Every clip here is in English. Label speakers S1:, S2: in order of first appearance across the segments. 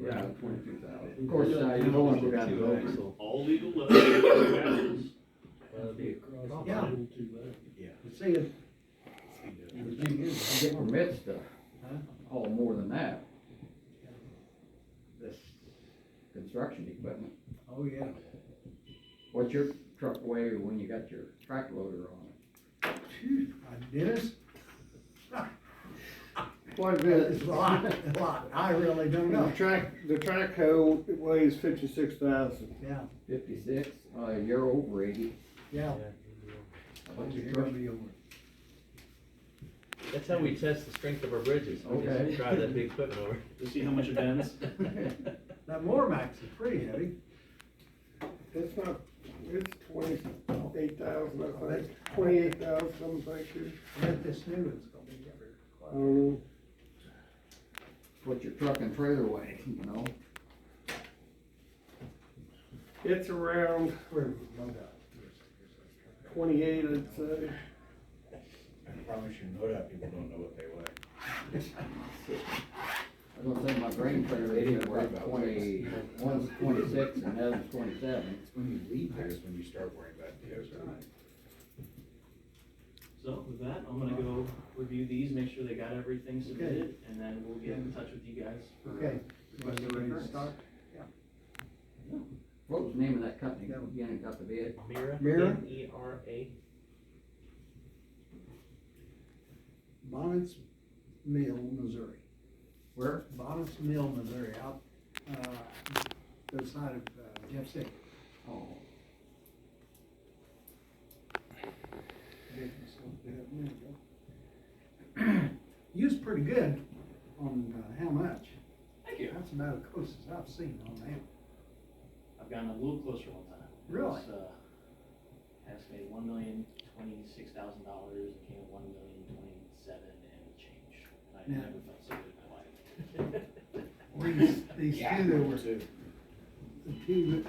S1: Yeah.
S2: Twenty-two thousand.
S1: Of course, I don't want to go down the road.
S3: All legal levels.
S1: Yeah. But See, it- the thing is, you get permits to haul oh, more than that. This construction equipment,
S4: Oh, yeah.
S1: what's your truck weigh when you got your track loader on it?
S4: Phew, I did it.
S5: Quite a
S4: It's
S5: bit.
S4: a lot, a lot. I really don't
S5: The
S4: know.
S5: track, the track hoe weighs fifty-six thousand.
S4: Yeah,
S1: Fifty-six, uh, you're over eighty.
S4: yeah.
S1: What's your
S4: You're
S1: truck?
S4: gonna be over.
S6: That's how we test the strength of our bridges, we
S1: Okay.
S6: just drive that big equipment over.
S3: To see how much it bends.
S4: That Mormax is pretty heavy.
S5: It's not, it's twenty-eight thousand, I think, twenty-eight thousand, something like that.
S4: But this new one's gonna be heavier.
S5: I don't know.
S1: What's your truck and trailer weigh, you know?
S5: It's around
S4: We're low down.
S5: twenty-eight, I'd say.
S7: Probably should know that, people don't know what they weigh.
S1: I was gonna say my grain trailer,
S7: They
S1: is
S7: didn't worry
S1: about
S7: about
S1: twenty, one's twenty-six and the other's twenty-seven.
S7: It's when you leave there is when you start worrying about the ozone.
S3: So with that, I'm gonna go review these, make sure they got everything submitted, and then we'll get in touch with you guys for.
S4: Okay.
S3: Request
S4: You ready to
S3: returns.
S4: start?
S1: What was the name of that company again that got the bid?
S6: Mira?
S4: Mira?
S6: M E R A.
S4: Bonnet's Mill, Missouri.
S1: Where?
S4: Bonnet's Mill, Missouri, out, uh, the side of uh, Jeff City.
S1: Oh,
S4: You was pretty good on uh, how much.
S3: Thank you.
S4: That's about as close as I've seen on that.
S3: I've gotten a little closer one time. It
S4: Really?
S3: was, uh, Estimated one million twenty-six thousand dollars, and came at one million twenty-seven and change. And I
S4: Yeah.
S3: never felt so good in my life.
S4: These, these two that were,
S7: Two.
S4: the two that,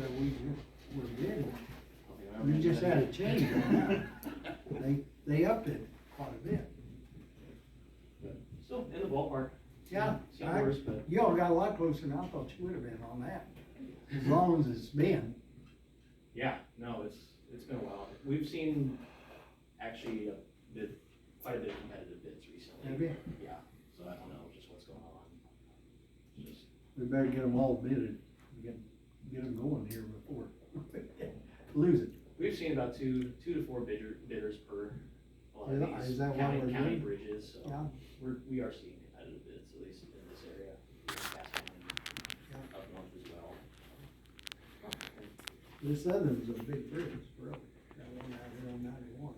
S4: that we were- were bidding,
S3: Hope remember
S4: we just
S3: that.
S4: had a change on that. They, they upped it quite a bit.
S3: Still in the ballpark.
S4: Yeah,
S3: Seen
S4: I-
S3: worse, but.
S4: Y'all got a lot closer than I thought you would have been on that, as long as it's been.
S3: Yeah, no, it's, it's been a while. We've seen actually a bit, quite a bit of competitive bids recently.
S4: Have you?
S3: Yeah, so I don't know just what's going on. Just-
S4: We better get them all bidded, get, get them going here before, lose it.
S3: We've seen about two, two to four bidder, bidders per a lot
S4: Is-
S3: of these
S4: is that what we're
S3: county, county
S4: doing?
S3: bridges, so
S4: Yeah,
S3: we're, we are seeing competitive bids, at least in this area. Castle and Up north as well.
S4: this other one's a big difference, really, that one out here on ninety-one.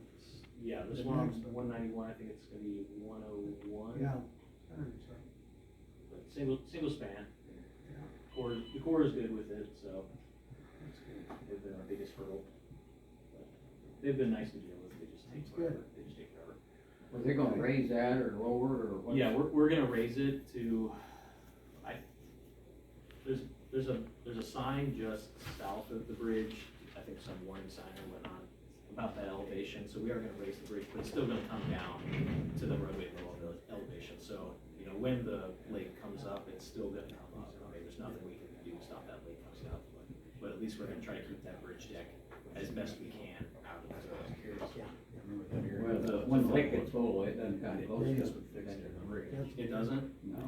S3: Yeah, this
S4: The
S3: one,
S4: next
S3: one
S4: one.
S3: ninety-one, I think it's gonna be one oh one.
S4: Yeah. I heard so.
S3: But single, single span.
S4: Yeah.
S3: Core, the core is good with it, so they've been our biggest hurdle. But They've been nice to deal with, they just take
S4: That's
S3: forever, they just take forever.
S1: were they gonna raise that or lower it or what?
S3: Yeah, we're, we're gonna raise it to, I, there's, there's a, there's a sign just south of the bridge, I think some warning sign or whatnot, about that elevation, so we are gonna raise the bridge, but it's still gonna come down to the roadway level of the elevation, so, you know, when the lake comes up, it's still gonna come up, I mean, there's nothing we can do to stop that lake coming up, but, but at least we're gonna try to keep that bridge deck as best we can out of the road.
S1: Well, the one lake gets full, it doesn't kind of close to the bridge.
S3: It doesn't?
S1: No,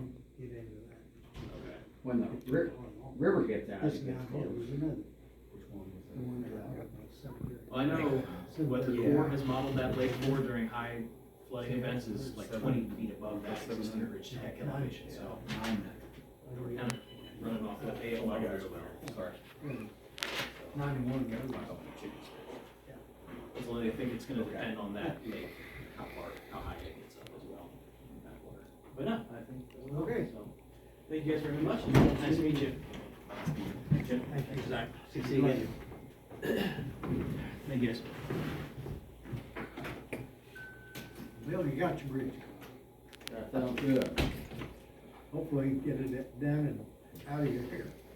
S4: Get into that.
S3: Okay.
S1: when the ri- river gets out,
S4: This
S1: it
S4: guy
S1: gets
S4: here
S1: close.
S4: was another. The one that I got my cemetery.
S3: Well, I know what the
S4: Yeah.
S3: Corps has modeled that lake for during high flooding events is like twenty feet above that existing ridge deck elevation, so. We're kind of running off what they allow as well. Sorry.
S4: Ninety-one, the other one. Yeah.
S3: So I think it's gonna depend on that lake, how far, how high it gets up as well. in that water. But no, I think, that was okay, so. Thank you guys very much, and nice to meet you. Jim,
S4: Thank you.
S3: Zach, see you again. Thank you guys.
S4: Bill, you got your bridge.
S1: That sounds good.
S4: Hopefully you can get it down and out of your hair.